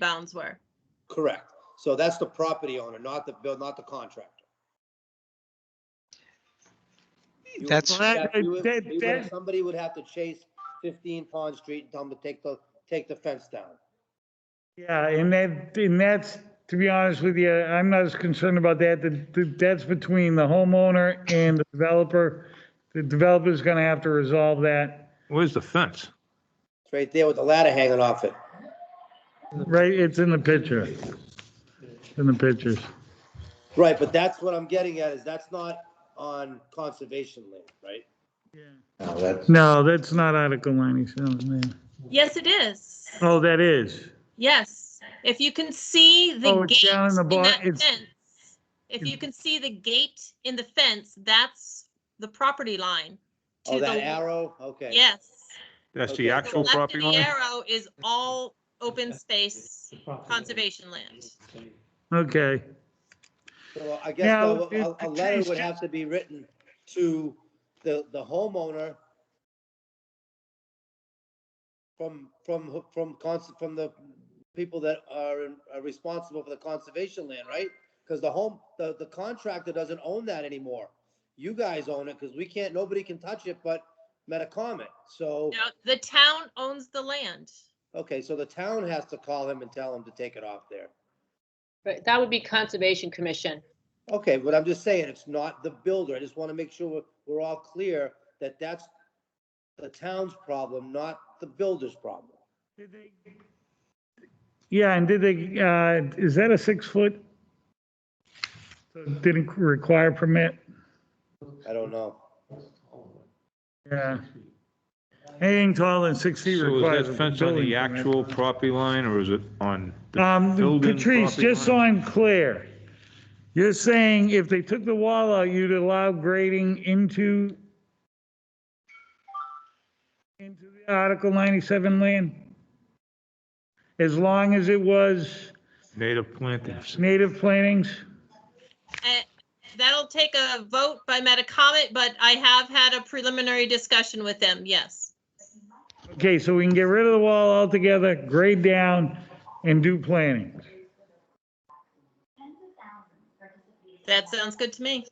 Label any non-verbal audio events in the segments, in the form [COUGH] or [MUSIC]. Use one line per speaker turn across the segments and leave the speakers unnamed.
bounds were.
Correct. So that's the property owner, not the bill, not the contractor. You would-
That's-
that- you would-
That-
you would-
that-
Somebody would have to chase fifteen Pond Street and tell them to take the, take the fence down.
Yeah, and that, and that's, to be honest with you, I'm not as concerned about that. That- that- That's between the homeowner and the developer. The developer's gonna have to resolve that,
Where's the fence?
It's right there with the ladder hanging off it.
right? It's in the picture. In the pictures.
Right, but that's what I'm getting at, is that's not on conservation land, right?
No, that's,
No, that's not Article 97. yeah.
Yes, it is.
Oh, that is.
Yes, if you can see
Oh,
the
it's
gate
down in the
in
bar-
that
it's-
fence, if you can see the gate in the fence, that's the property line.
Oh,
to the
that
le-
arrow, okay.
Yes.
That's
Okay.
the
To The
actual
left of
property
the
line?
arrow is all open space conservation land.
Okay.
So I guess
Now,
though,
if
a, a
the
letter
trees
would
get-
have to be written to the, the homeowner from, from, who- from cons, from the people that are, in- are responsible for the conservation land, right? Because the home, the, the contractor doesn't own that anymore. You guys own it, because we can't, nobody can touch it but Metacomet, so,
Now, the town owns the land.
okay, so the town has to call him and tell him to take it off there.
But that would be Conservation Commission.
Okay, but I'm just saying, it's not the builder. I just want to make sure we're, we're all clear that that's the town's problem, not the builder's problem.
Yeah, and did they, uh, is that a six foot? So it Didn't require permit?
I don't know.
Yeah. Anything taller than six feet
So
requires
is
a
that fence on
building
the
permit.
actual property line or is it on? the
Um,
building
Patrice,
property
just so
line?
I'm clear, you're saying if they took the wall out, you'd allow grading into into the Article 97 land? As long as it was
Native plantings.
native plantings?
Eh, That'll take a vote by Metacomet, but I have had a preliminary discussion with them, yes.
Okay, so we can get rid of the wall altogether, grade down, and do planning.
That sounds good to me.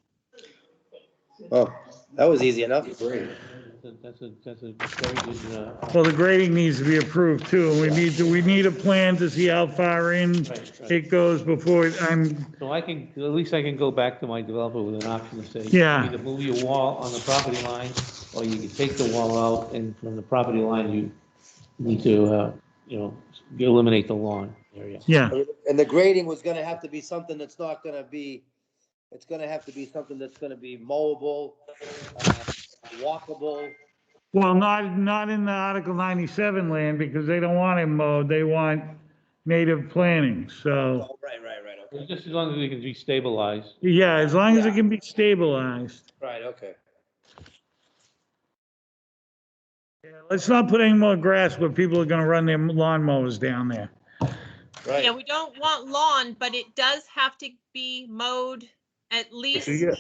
Oh, that was easy enough.
great.
That's a, that's a very good, uh,
Well, the grading needs to be approved too, and we need to, we need a plan to see how far in
right, right.
it goes before it- I'm,
So I can, at least I can go back to my developer with an option to say,
Yeah.
either move your wall on the property line, or you can take the wall out, and from the property line, you need to, uh, you know, you eliminate the lawn area.
yeah.
And the grading was gonna have to be something that's not gonna be, it's gonna have to be something that's gonna be mowable, uh, walkable.
Well, not, not in the Article 97 land, because they don't want it mowed, they want native planting, so,
Oh, right, right, right, okay.
Just as long as we can destabilize.
yeah, as long as it can be stabilized.
Right, okay.
Let's not put any more grass where people are gonna run their lawnmowers down there.
Yeah,
Right.
we don't want lawn, but it does have to be mowed at least
Yeah.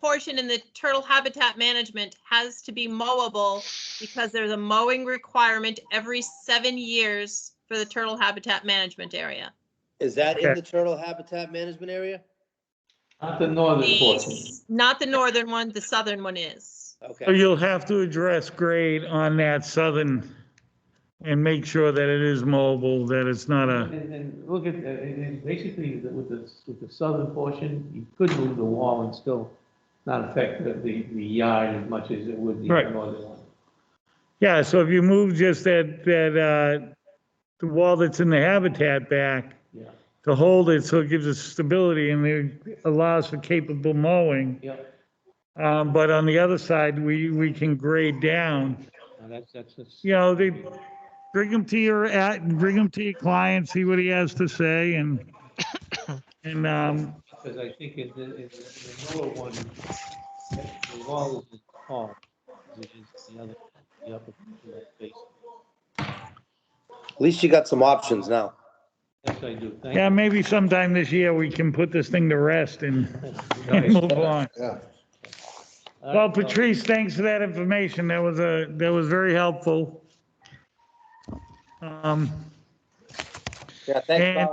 portion in the turtle habitat management has to be mowable because there's a mowing requirement every seven years for the turtle habitat management area.
Is that in
Okay.
the turtle habitat management area?
Not the northern portion.
The- Not the northern one, the southern one is.
So
Okay,
you'll have to address grade on that southern and make sure that it is mobile, that it's not a,
And, and look at, and- and basically, the- with the, with the southern portion, you could move the wall and still not affect the, the the yard as much as it would the
Right.
northern one.
yeah, so if you move just that, that, uh, the wall that's in the habitat back
Yeah,
to hold it, so it gives us stability and it allows for capable mowing.
yeah,
Um, but on the other side, we, we can grade down,
No, that's, that's, that's.
you know, they, bring them to your, at, bring them to your client, see what he has to say and, [COUGHS] and, um,
Because I think in the, in the lower one, the wall is as tall as it is the other, the upper face.
at least you got some options now.
Yes, I do, thank you.
Yeah, maybe sometime this year we can put this thing to rest and and move on.
Yeah.
All
[LAUGHS] Well,
right, Uh, so-
Patrice, thanks for that information. That was a, that was very helpful. Um,
Yeah, thanks,
And-
Bob.